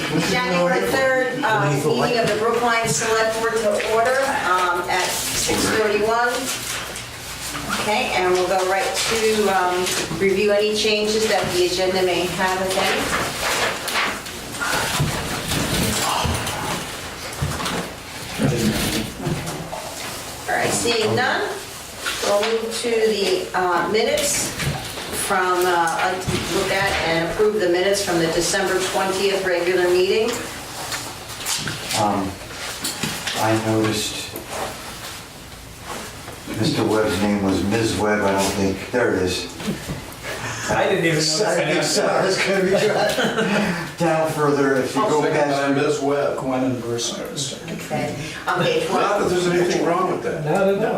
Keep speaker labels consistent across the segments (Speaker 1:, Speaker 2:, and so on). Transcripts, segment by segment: Speaker 1: planning the third um, meeting of the Brookline Select Board to order um, at 6:31. Okay, and we'll go right to um, review any changes that the agenda may have again. All right, seeing none, we'll move to the uh, minutes from, uh, I'd like to look at and approve the minutes from the December 20th regular meeting.
Speaker 2: Um, I noticed Mr. Webb's name was Ms. Webb, I don't think, there it is.
Speaker 3: I didn't even notice
Speaker 2: I think Sarah's gonna be right. down further if you go
Speaker 4: Second by
Speaker 2: past.
Speaker 4: Ms. Webb.
Speaker 3: Gwen Burson.
Speaker 5: Uh,
Speaker 1: Okay, on page
Speaker 4: Not
Speaker 1: one.
Speaker 4: that there's anything wrong with that.
Speaker 3: No, no, no.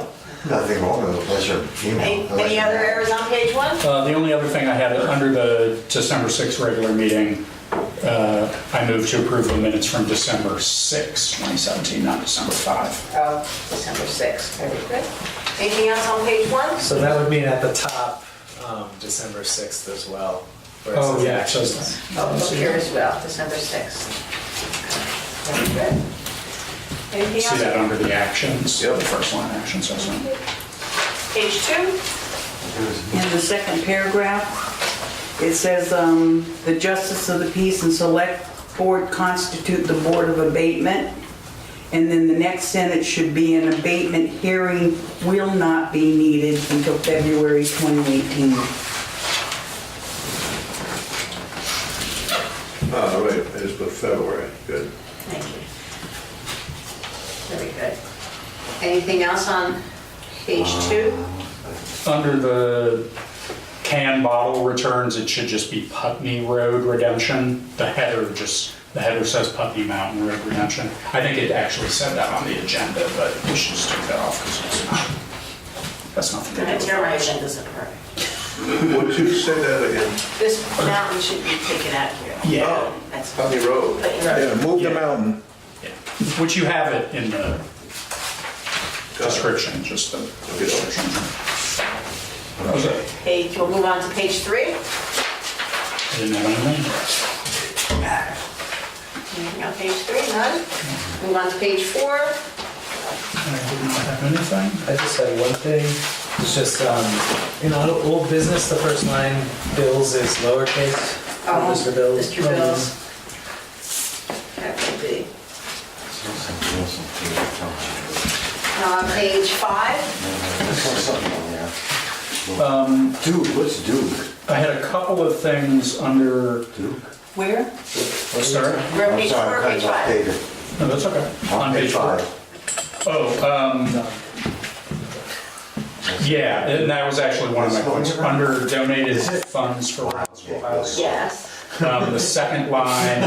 Speaker 2: Nothing wrong with it, unless you're
Speaker 1: Any
Speaker 2: female.
Speaker 1: any other errors on page one?
Speaker 5: Uh, The only other thing I had, under the December 6th regular meeting, uh, I moved to approve the minutes from December 6, 2017, not December 5.
Speaker 1: Oh, December 6th, very good. Anything else on page one?
Speaker 3: So that would mean at the top, um, December 6th as well. where Oh, it says
Speaker 5: It
Speaker 3: action.
Speaker 5: says
Speaker 1: Oh, look here as well, December 6th. Very good.
Speaker 5: that.
Speaker 1: Anything
Speaker 5: See that
Speaker 1: else?
Speaker 5: under the actions, the
Speaker 4: Yep.
Speaker 5: first line actions, I was on.
Speaker 1: Page two?
Speaker 6: In the second paragraph, it says, um, "The justice of the peace and select board constitute the board of abatement." And then the next sentence should be, "An abatement hearing will not be needed until February 2018."
Speaker 4: Oh, right, I just put February, good.
Speaker 1: Thank you. Very good. Anything else on page two?
Speaker 5: Under the can bottle returns, it should just be Putney Road Redemption. The header just, the header says Putney Mountain Road Redemption. I think it actually said that on the agenda, but we should just take that off because it's not, that's nothing to do with it.
Speaker 1: my agenda's apart.
Speaker 4: Would you say that again?
Speaker 1: This mountain should be taken out of here.
Speaker 5: Yeah.
Speaker 4: Oh,
Speaker 1: That's
Speaker 4: Putney Road.
Speaker 1: Right.
Speaker 7: move
Speaker 5: the
Speaker 7: mountain.
Speaker 5: Yeah. Which you have it in the description, just the description. Okay.
Speaker 1: Page, we'll move on to page three.
Speaker 5: I didn't have anything.
Speaker 1: Anything on Oh, page three? None? Move on to page four.
Speaker 5: I did not have anything.
Speaker 3: I just had one thing, it's just, um, in old- old business, the first line, bills is lowercase.
Speaker 1: Oh,
Speaker 3: Mr. Bills.
Speaker 1: Mr.
Speaker 3: Oh,
Speaker 1: Bills. That would be.
Speaker 2: Something else on here, don't you?
Speaker 1: Uh, Page five.
Speaker 2: I saw something on there.
Speaker 5: Um,
Speaker 2: Duke, what's Duke?
Speaker 5: I had a couple of things under,
Speaker 2: Duke?
Speaker 6: Where?
Speaker 5: sorry,
Speaker 1: We're on
Speaker 2: I'm
Speaker 1: page four,
Speaker 2: sorry,
Speaker 1: or
Speaker 2: I
Speaker 1: page
Speaker 2: cut off
Speaker 1: five.
Speaker 2: David.
Speaker 5: no, that's okay.
Speaker 2: On page
Speaker 5: four.
Speaker 2: five.
Speaker 5: Oh, um, yeah, and that was actually one of my points, under donated funds for Roswell House.
Speaker 1: Yes.
Speaker 5: Um, The second line,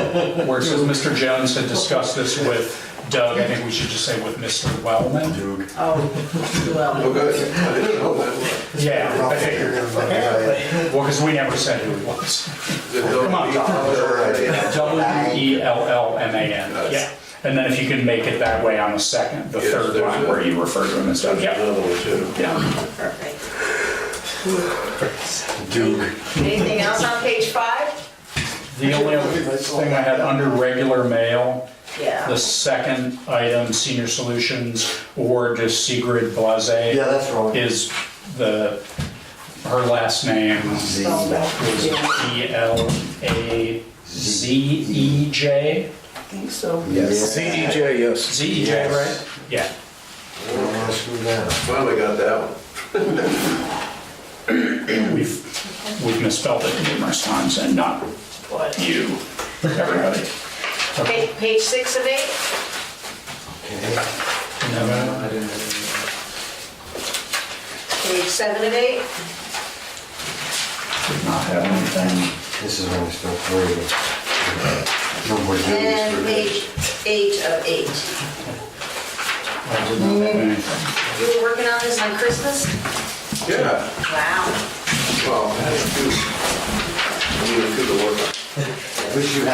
Speaker 5: where it says, "Mr. Jones had discussed this with Doug," I think we should just say with Mr. Wellman.
Speaker 2: Duke.
Speaker 1: Oh, well,
Speaker 4: Oh, good, I didn't know that.
Speaker 5: Yeah, I figured.
Speaker 2: Apparently.
Speaker 5: Well, because we never said who it was.
Speaker 4: Come
Speaker 5: on. E W-E-L-L-M-A-N, yeah. And then if you can make it that way on the second, the
Speaker 4: Yes,
Speaker 5: third
Speaker 4: there's
Speaker 5: line
Speaker 4: a-
Speaker 5: where you refer to him as Doug, yeah.
Speaker 4: Another one, too.
Speaker 5: Yeah.
Speaker 1: perfect.
Speaker 2: Duke.
Speaker 1: Anything else on page five?
Speaker 5: The only other thing I had under regular mail,
Speaker 1: Yeah.
Speaker 5: the second item, Senior Solutions Award to Sigrid Blase.
Speaker 2: Yeah, that's wrong.
Speaker 5: Is the, her last name is E B-L-A-Z-E-J?
Speaker 6: I think so.
Speaker 2: Yes.
Speaker 7: CDJ, yes.
Speaker 5: Z-E-J, E right?
Speaker 2: Yes.
Speaker 5: Yeah.
Speaker 2: I don't wanna screw that up.
Speaker 4: Finally got that one.
Speaker 5: We've, we've misspelled it numerous times and not you, everybody.
Speaker 1: Pa- Page six of eight.
Speaker 2: Okay.
Speaker 3: I didn't know.
Speaker 1: Page seven of eight.
Speaker 5: Did not have anything.
Speaker 2: This is when we start worrying. No more
Speaker 1: And
Speaker 2: duties
Speaker 1: page eight of eight.
Speaker 5: I did not have anything.
Speaker 1: You were working on this on Christmas?
Speaker 4: Yeah,
Speaker 1: Wow.
Speaker 4: well, I had to do, I needed to do the work.
Speaker 2: for. Wish you had